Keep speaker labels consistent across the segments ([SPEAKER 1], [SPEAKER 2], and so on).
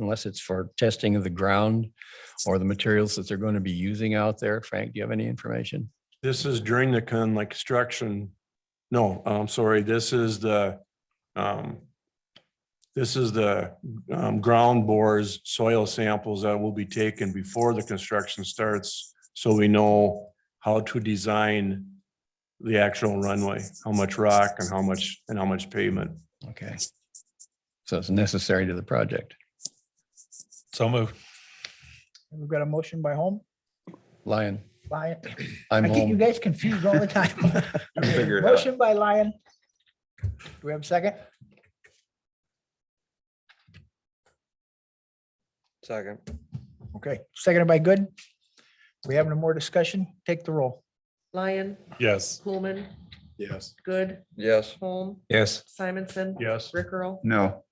[SPEAKER 1] unless it's for testing of the ground or the materials that they're going to be using out there. Frank, do you have any information?
[SPEAKER 2] This is during the con, like construction. No, I'm sorry, this is the, um, this is the, um, ground bores, soil samples that will be taken before the construction starts. So we know how to design the actual runway, how much rock and how much, and how much pavement.
[SPEAKER 1] Okay. So it's necessary to the project.
[SPEAKER 3] So moved.
[SPEAKER 4] We've got a motion by Home,
[SPEAKER 1] Lion,
[SPEAKER 4] Lyon.
[SPEAKER 1] I'm
[SPEAKER 4] I get you
[SPEAKER 1] home.
[SPEAKER 4] guys confused all the time.
[SPEAKER 2] figure it out.
[SPEAKER 4] Motion by Lyon. Do we have a second?
[SPEAKER 5] Second.
[SPEAKER 4] Okay, seconded by Good. We having more discussion? Take the roll.
[SPEAKER 6] Lyon,
[SPEAKER 3] Yes.
[SPEAKER 6] Coolman,
[SPEAKER 3] Yes.
[SPEAKER 6] Good,
[SPEAKER 5] Yes.
[SPEAKER 6] Holm,
[SPEAKER 3] Yes.
[SPEAKER 6] Simonson,
[SPEAKER 3] Yes.
[SPEAKER 6] Rick Earl.
[SPEAKER 3] No.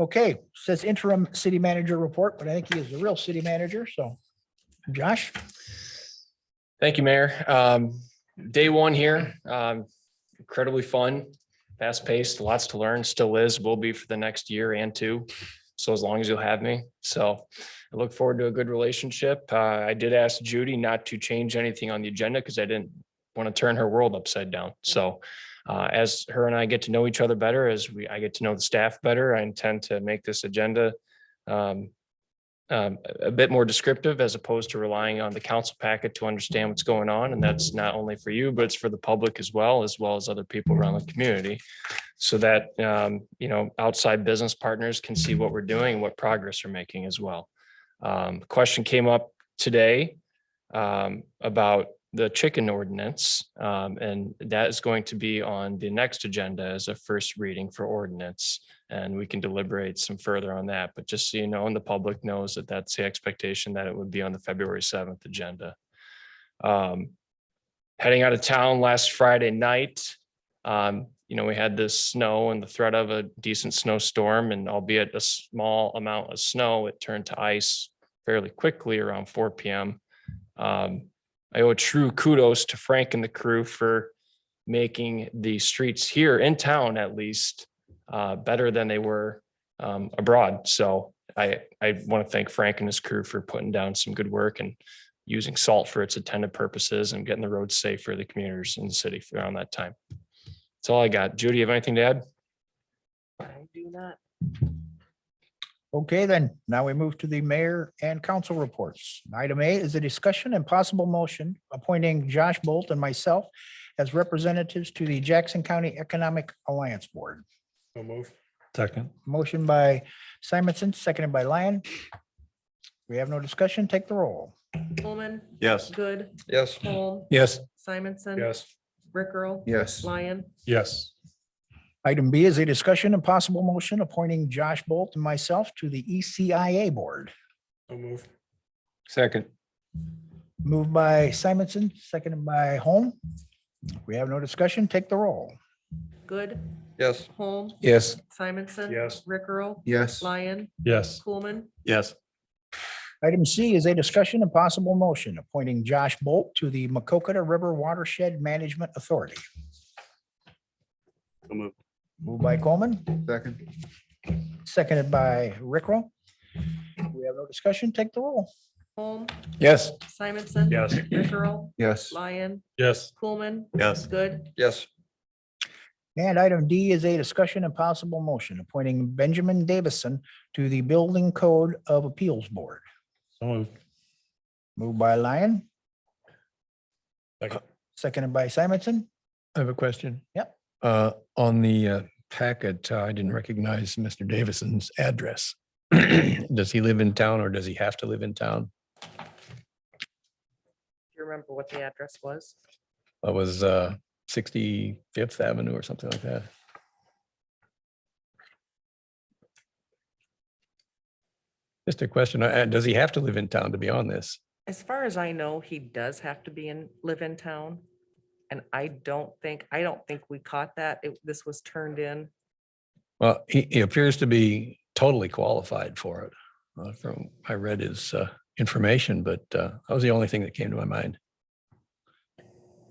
[SPEAKER 4] Okay, says interim city manager report, but I think he is the real city manager, so. Josh,
[SPEAKER 7] Thank you, Mayor. Um, day one here, um, incredibly fun, fast paced, lots to learn, still is, will be for the next year and two. So as long as you'll have me. So I look forward to a good relationship. Uh, I did ask Judy not to change anything on the agenda because I didn't want to turn her world upside down. So uh, as her and I get to know each other better, as we, I get to know the staff better, I intend to make this agenda um, um, a a bit more descriptive as opposed to relying on the council packet to understand what's going on. And that's not only for you, but it's for the public as well, as well as other people around the community. So that, um, you know, outside business partners can see what we're doing, what progress we're making as well. Um, question came up today um, about the chicken ordinance. Um, and that is going to be on the next agenda as a first reading for ordinance and we can deliberate some further on that. But just so you know, and the public knows that that's the expectation that it would be on the February seventh agenda. Um, Heading out of town last Friday night, um, you know, we had the snow and the threat of a decent snowstorm and albeit a small amount of snow, it turned to ice fairly quickly around four PM. Um, I owe a true kudos to Frank and the crew for making the streets here in town at least uh, better than they were um, abroad. So I, I want to thank Frank and his crew for putting down some good work and using salt for its intended purposes and getting the roads safe for the commuters in the city around that time. That's all I got. Judy, you have anything to add?
[SPEAKER 6] I do not.
[SPEAKER 4] okay, then now we move to the mayor and council reports. Item A is a discussion and possible motion appointing Josh Bolt and myself as representatives to the Jackson County Economic Alliance Board.
[SPEAKER 3] So moved. Second.
[SPEAKER 4] Motion by Simonson, seconded by Lyon. We have no discussion. Take the roll.
[SPEAKER 6] Coolman,
[SPEAKER 2] Yes.
[SPEAKER 6] Good,
[SPEAKER 5] Yes.
[SPEAKER 6] Holm,
[SPEAKER 3] Yes.
[SPEAKER 6] Simonson.
[SPEAKER 3] Yes.
[SPEAKER 6] Rick Earl,
[SPEAKER 5] Yes.
[SPEAKER 6] Lyon,
[SPEAKER 3] Yes.
[SPEAKER 4] Item B is a discussion and possible motion appointing Josh Bolt and myself to the E ECIA Board.
[SPEAKER 3] So moved.
[SPEAKER 5] Second.
[SPEAKER 4] Moved by Simonson, seconded by Holm. We have no discussion. Take the roll.
[SPEAKER 6] Good,
[SPEAKER 5] Yes.
[SPEAKER 6] Holm,
[SPEAKER 3] Yes.
[SPEAKER 6] Simonson.
[SPEAKER 3] Yes.
[SPEAKER 6] Rick Earl,
[SPEAKER 5] Yes.
[SPEAKER 6] Lyon,
[SPEAKER 3] Yes.
[SPEAKER 6] Coolman,
[SPEAKER 2] Yes.
[SPEAKER 4] Item C is a discussion and possible motion appointing Josh Bolt to the Macocata River Watershed Management Authority. Moved by Coleman,
[SPEAKER 5] Second.
[SPEAKER 4] seconded by Rickrell. We have no discussion. Take the roll.
[SPEAKER 6] Holm,
[SPEAKER 3] Yes.
[SPEAKER 6] Simonson.
[SPEAKER 3] Yes.
[SPEAKER 6] Rick Earl,
[SPEAKER 5] Yes.
[SPEAKER 6] Lyon,
[SPEAKER 3] Yes.
[SPEAKER 6] Coolman,
[SPEAKER 2] Yes.
[SPEAKER 6] Good,
[SPEAKER 5] Yes.
[SPEAKER 4] And item D is a discussion and possible motion appointing Benjamin Davison to the Building Code of Appeals Board.
[SPEAKER 3] So moved.
[SPEAKER 4] Moved by Lyon.
[SPEAKER 3] Second.
[SPEAKER 4] Seconded by Simonson.
[SPEAKER 1] I have a question.
[SPEAKER 4] Yep.
[SPEAKER 1] Uh, on the uh, packet, uh, I didn't recognize Mr. Davison's address. Does he live in town or does he have to live in town?
[SPEAKER 6] Do you remember what the address was?
[SPEAKER 1] It was uh, 65th Avenue or something like that. Just a question. uh, Does he have to live in town to be on this?
[SPEAKER 6] As far as I know, he does have to be in, live in town. And I don't think, I don't think we caught that. It, this was turned in.
[SPEAKER 1] Well, he, he appears to be totally qualified for it. uh, From, I read his uh, information, but uh, that was the only thing that came to my mind.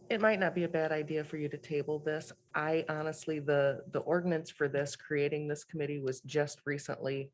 [SPEAKER 6] It might not be a bad idea for you to table this. I honestly, the, the ordinance for this, creating this committee was just recently